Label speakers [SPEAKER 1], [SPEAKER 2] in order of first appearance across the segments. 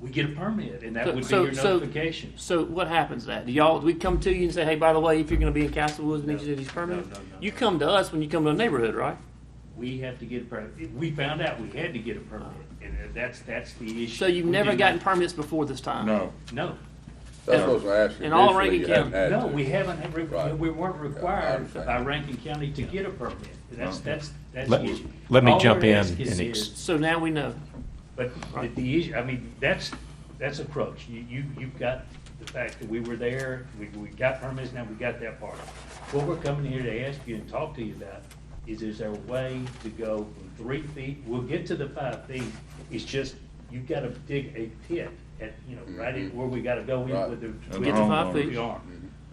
[SPEAKER 1] we get a permit, and that
[SPEAKER 2] So-
[SPEAKER 1] would be
[SPEAKER 2] so-
[SPEAKER 1] your
[SPEAKER 2] so-
[SPEAKER 1] notification.
[SPEAKER 2] So what happens then? Do y'all, do we come to you and say, hey, by the way, if you're gonna be in Castle Woods, we need you to do these
[SPEAKER 1] No, no,
[SPEAKER 2] permits?
[SPEAKER 1] no, no.
[SPEAKER 2] You come to us when you come to a neighborhood, right?
[SPEAKER 1] We have to get a permit. We found out we had to get a permit, and uh, that's, that's the issue.
[SPEAKER 2] So you've
[SPEAKER 1] We
[SPEAKER 2] never
[SPEAKER 1] did
[SPEAKER 2] gotten
[SPEAKER 1] not-
[SPEAKER 2] permits before this time?
[SPEAKER 3] No,
[SPEAKER 1] No,
[SPEAKER 4] That's what I was asking.
[SPEAKER 2] In all Rankin County.
[SPEAKER 1] no, we haven't, we-
[SPEAKER 4] Right.
[SPEAKER 1] we weren't required
[SPEAKER 4] understand.
[SPEAKER 1] by Rankin County to get a permit. That's,
[SPEAKER 3] No.
[SPEAKER 1] that's, that's
[SPEAKER 5] Let-
[SPEAKER 1] the issue.
[SPEAKER 5] let me
[SPEAKER 1] All
[SPEAKER 5] jump
[SPEAKER 1] we're
[SPEAKER 5] in
[SPEAKER 1] asking
[SPEAKER 5] and ex-
[SPEAKER 1] is-
[SPEAKER 2] So now we know.
[SPEAKER 1] But the- the issue, I mean, that's, that's a crutch. You, you, you've got the fact that we were there, we, we got permits, now we got that part. What we're coming here to ask you and talk to you about is is there a way to go from three feet, we'll get to the five feet, it's just, you've gotta dig a pit at, you know, right in where we gotta go in
[SPEAKER 4] Right.
[SPEAKER 1] with the.
[SPEAKER 3] And
[SPEAKER 1] with the
[SPEAKER 3] the
[SPEAKER 2] five feet.
[SPEAKER 1] arm.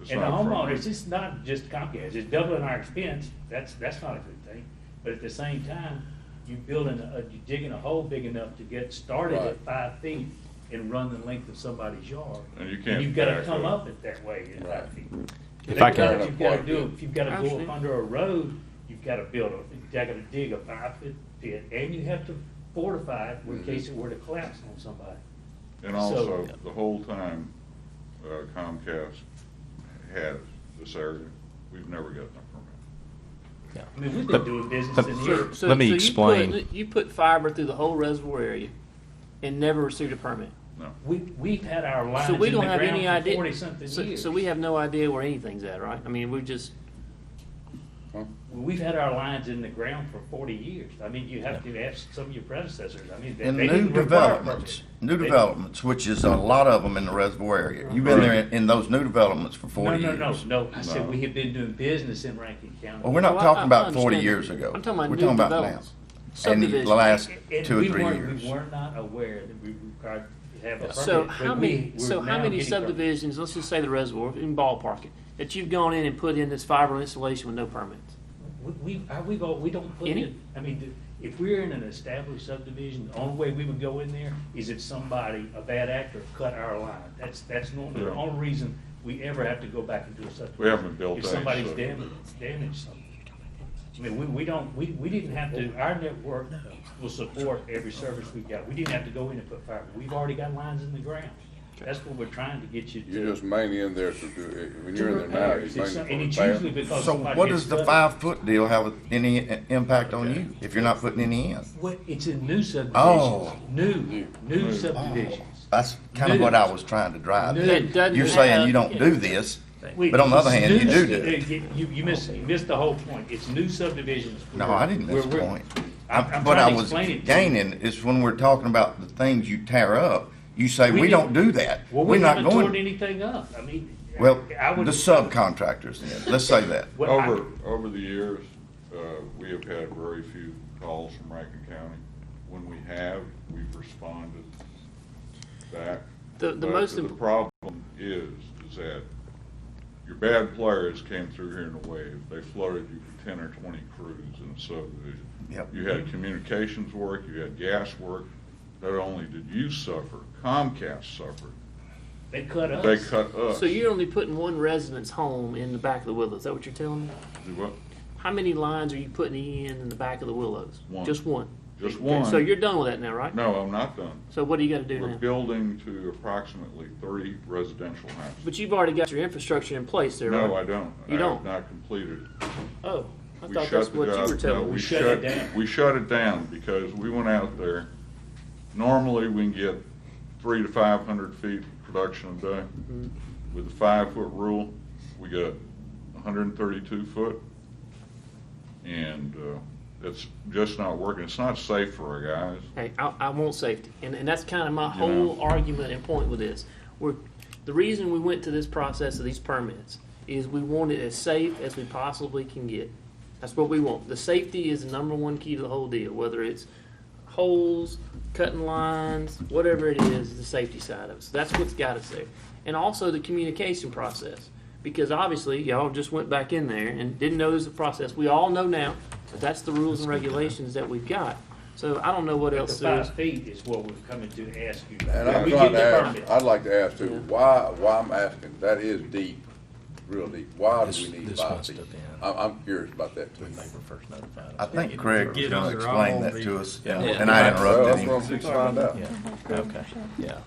[SPEAKER 3] It's
[SPEAKER 1] And the
[SPEAKER 3] not appropriate.
[SPEAKER 1] homeowners, it's not just Comcast, it's doubling our expense, that's, that's not a good thing. But at the same time, you building, a- you digging a hole big enough to get started
[SPEAKER 4] Right.
[SPEAKER 1] at five feet and run the length of somebody's yard.
[SPEAKER 3] And you can't
[SPEAKER 1] You've gotta
[SPEAKER 3] back
[SPEAKER 1] come
[SPEAKER 3] up.
[SPEAKER 1] up it that way at five
[SPEAKER 4] Right.
[SPEAKER 1] feet.
[SPEAKER 5] If I
[SPEAKER 1] That's what
[SPEAKER 5] can,
[SPEAKER 1] You've gotta do, if you've gotta go up
[SPEAKER 2] Understand.
[SPEAKER 1] under a road, you've gotta build a, you've gotta dig a five foot pit, and you have to fortify it in case it were to collapse on somebody.
[SPEAKER 3] Mm-hmm. and
[SPEAKER 1] So-
[SPEAKER 3] also, the whole time uh, Comcast had this area, we've never gotten a
[SPEAKER 1] I mean, we've been
[SPEAKER 5] But-
[SPEAKER 1] doing business
[SPEAKER 5] but-
[SPEAKER 1] in
[SPEAKER 2] So-
[SPEAKER 1] here.
[SPEAKER 2] so-
[SPEAKER 5] Let me
[SPEAKER 2] so you
[SPEAKER 5] explain.
[SPEAKER 2] put- You put fiber through the whole reservoir area and never received a permit.
[SPEAKER 3] permit,
[SPEAKER 1] We, we've had our lines
[SPEAKER 2] So
[SPEAKER 1] in the
[SPEAKER 2] we don't have any
[SPEAKER 1] ground for
[SPEAKER 2] idea.
[SPEAKER 1] forty something
[SPEAKER 2] so-
[SPEAKER 1] years.
[SPEAKER 2] So we have no idea where anything's at, right? I mean, we just,
[SPEAKER 1] We've had our lines in the ground for forty years. I mean, you have to ask some of your predecessors. I mean, they,
[SPEAKER 6] And
[SPEAKER 1] they
[SPEAKER 6] new
[SPEAKER 1] didn't require
[SPEAKER 6] developments,
[SPEAKER 1] much.
[SPEAKER 6] new
[SPEAKER 1] They-
[SPEAKER 6] developments, which is a lot of them in the reservoir area. You've been there in, in those new developments for
[SPEAKER 1] No,
[SPEAKER 6] forty
[SPEAKER 1] no,
[SPEAKER 6] years.
[SPEAKER 1] no, no. I said
[SPEAKER 3] No.
[SPEAKER 1] we have been doing business in Rankin County.
[SPEAKER 6] Well, we're not
[SPEAKER 2] Well, I-
[SPEAKER 6] talking
[SPEAKER 2] I
[SPEAKER 6] about forty
[SPEAKER 2] understand.
[SPEAKER 6] years ago.
[SPEAKER 2] I'm talking about
[SPEAKER 6] We're
[SPEAKER 2] new
[SPEAKER 6] talking about now.
[SPEAKER 2] developments.
[SPEAKER 6] In the
[SPEAKER 2] subdivision.
[SPEAKER 6] last
[SPEAKER 1] And
[SPEAKER 6] two or
[SPEAKER 1] we
[SPEAKER 6] three
[SPEAKER 1] weren't-
[SPEAKER 6] years.
[SPEAKER 1] We were not aware that we required to have a permit.
[SPEAKER 2] So
[SPEAKER 1] but
[SPEAKER 2] how
[SPEAKER 1] we-
[SPEAKER 2] many,
[SPEAKER 1] we're
[SPEAKER 2] so how
[SPEAKER 1] now
[SPEAKER 2] many
[SPEAKER 1] getting permits.
[SPEAKER 2] subdivisions, let's just say the reservoir, in ballparking, that you've gone in and put in this fiber installation with no permits?
[SPEAKER 1] We, we, I- we've all, we don't put
[SPEAKER 2] Any?
[SPEAKER 1] in, I mean, the- if we're in an established subdivision, the only way we would go in there is if somebody, a bad actor, cut our line. That's, that's normally the
[SPEAKER 3] Yeah.
[SPEAKER 1] only reason we ever have to go back into a subdivision.
[SPEAKER 3] We haven't built
[SPEAKER 1] If
[SPEAKER 3] any
[SPEAKER 1] somebody's
[SPEAKER 3] subdivision.
[SPEAKER 1] damaged, damaged something. I mean, we, we don't, we, we didn't have to, our network will support every service we got. We didn't have to go in and put fiber. We've already got lines in the ground. That's what we're trying to get you to.
[SPEAKER 4] You're just mainly in there to do, when you're in there now,
[SPEAKER 1] repairs.
[SPEAKER 4] you're
[SPEAKER 1] It's- And
[SPEAKER 4] mainly
[SPEAKER 1] it's
[SPEAKER 4] for
[SPEAKER 1] usually
[SPEAKER 4] repair.
[SPEAKER 1] because
[SPEAKER 6] So
[SPEAKER 1] somebody
[SPEAKER 6] what
[SPEAKER 1] gets
[SPEAKER 6] does the
[SPEAKER 1] flooded.
[SPEAKER 6] five-foot deal have any i- impact on you if you're not putting any in?
[SPEAKER 1] What, it's in new subdivisions,
[SPEAKER 6] Oh.
[SPEAKER 1] new, new
[SPEAKER 3] New.
[SPEAKER 1] subdivisions.
[SPEAKER 6] That's kind of what I was trying to drive.
[SPEAKER 1] New.
[SPEAKER 6] at.
[SPEAKER 2] That doesn't
[SPEAKER 6] You're saying you
[SPEAKER 2] have-
[SPEAKER 6] don't do this,
[SPEAKER 1] Wait,
[SPEAKER 6] but on the other
[SPEAKER 1] it's
[SPEAKER 6] hand, you
[SPEAKER 1] new
[SPEAKER 6] do
[SPEAKER 1] sub-
[SPEAKER 6] do it.
[SPEAKER 1] You, you missed, you missed the whole point, it's new subdivisions.
[SPEAKER 6] No, I didn't miss
[SPEAKER 1] We're-
[SPEAKER 6] the
[SPEAKER 1] we're-
[SPEAKER 6] point.
[SPEAKER 1] I'm,
[SPEAKER 6] I-
[SPEAKER 1] I'm
[SPEAKER 6] What I
[SPEAKER 1] trying to
[SPEAKER 6] was
[SPEAKER 1] explain it. to you.
[SPEAKER 6] gaining is when we're talking about the things you tear up, you say,
[SPEAKER 1] We
[SPEAKER 6] we don't
[SPEAKER 1] didn't-
[SPEAKER 6] do that.
[SPEAKER 1] Well, we
[SPEAKER 6] We're not
[SPEAKER 1] haven't torn
[SPEAKER 6] going.
[SPEAKER 1] anything up, I mean.
[SPEAKER 6] Well,
[SPEAKER 1] I would-
[SPEAKER 6] the subcontractors then, let's say that.
[SPEAKER 3] no.
[SPEAKER 1] Well, I-
[SPEAKER 3] Over, over the years, uh, we have had very few calls from Rankin County. When we have, we've responded back.
[SPEAKER 2] The- the
[SPEAKER 3] But
[SPEAKER 2] most
[SPEAKER 3] The
[SPEAKER 2] imp-
[SPEAKER 3] problem is, is that your bad players came through here in a wave. They flooded you with ten or twenty crews in a subdivision.
[SPEAKER 6] Yep.
[SPEAKER 3] You had communications work, you had gas work. Not only did you suffer, Comcast suffered.
[SPEAKER 1] They cut us.
[SPEAKER 3] They cut us.
[SPEAKER 2] So you're only putting one residence home in the back of the Willows, is that what you're telling me?
[SPEAKER 3] Do what?
[SPEAKER 2] How many lines are you putting in in the back of the Willows?
[SPEAKER 3] One.
[SPEAKER 2] Just one?
[SPEAKER 3] Just
[SPEAKER 2] Okay,
[SPEAKER 3] one.
[SPEAKER 2] So you're done with that now, right?
[SPEAKER 3] No, I'm not done.
[SPEAKER 2] So what do you gotta do
[SPEAKER 3] We're
[SPEAKER 2] now?
[SPEAKER 3] building to approximately thirty residential houses.
[SPEAKER 2] But you've already got your infrastructure in place there, right?
[SPEAKER 3] No, I don't.
[SPEAKER 2] You
[SPEAKER 3] I
[SPEAKER 2] don't?
[SPEAKER 3] have not completed. it.
[SPEAKER 2] Oh, I
[SPEAKER 3] We
[SPEAKER 2] thought
[SPEAKER 3] shut
[SPEAKER 2] that's
[SPEAKER 3] the
[SPEAKER 2] what you
[SPEAKER 3] job-
[SPEAKER 2] were
[SPEAKER 3] no,
[SPEAKER 2] telling me.
[SPEAKER 1] shut it down.
[SPEAKER 3] We shut it down because we went out there. Normally, we can get three to five hundred feet of production a day.
[SPEAKER 2] Mm-hmm.
[SPEAKER 3] With the five-foot rule, we got hundred and thirty-two foot. And, uh, it's just not working. It's not safe for our guys.
[SPEAKER 2] Hey, I, I want safety, and, and that's kind of my
[SPEAKER 3] You know.
[SPEAKER 2] whole argument and point with this. We're, the reason we went to this process of these permits is we want it as safe as we possibly can get. That's what we want. The safety is the number one key to the whole deal, whether it's holes, cutting lines, whatever it is, the safety side of it. So that's what's got us there. And also the communication process, because obviously y'all just went back in there and didn't know there was a process. We all know now, but that's the rules and regulations that we've got. So I don't know what
[SPEAKER 1] The
[SPEAKER 2] else there is.
[SPEAKER 1] five feet is what we're coming to ask you about.
[SPEAKER 4] And
[SPEAKER 1] When
[SPEAKER 4] I'd
[SPEAKER 1] we
[SPEAKER 4] like
[SPEAKER 1] get
[SPEAKER 4] to
[SPEAKER 1] the
[SPEAKER 4] ask,
[SPEAKER 1] permit.
[SPEAKER 4] I'd like to ask too, why, why I'm asking, that is deep, real deep. Why
[SPEAKER 5] This-
[SPEAKER 4] do we need
[SPEAKER 5] this
[SPEAKER 4] five
[SPEAKER 5] must
[SPEAKER 4] feet?
[SPEAKER 5] have been-
[SPEAKER 4] I'm, I'm curious about that too.
[SPEAKER 5] first notified
[SPEAKER 6] I think Craig was
[SPEAKER 7] Get
[SPEAKER 6] gonna
[SPEAKER 7] under all
[SPEAKER 6] explain that
[SPEAKER 7] the-
[SPEAKER 6] to us,
[SPEAKER 5] Yeah.
[SPEAKER 6] and I
[SPEAKER 4] Well,
[SPEAKER 6] interrupted
[SPEAKER 4] that's
[SPEAKER 6] him.
[SPEAKER 4] what I'm fixing to find out.
[SPEAKER 5] Yeah, okay, yeah.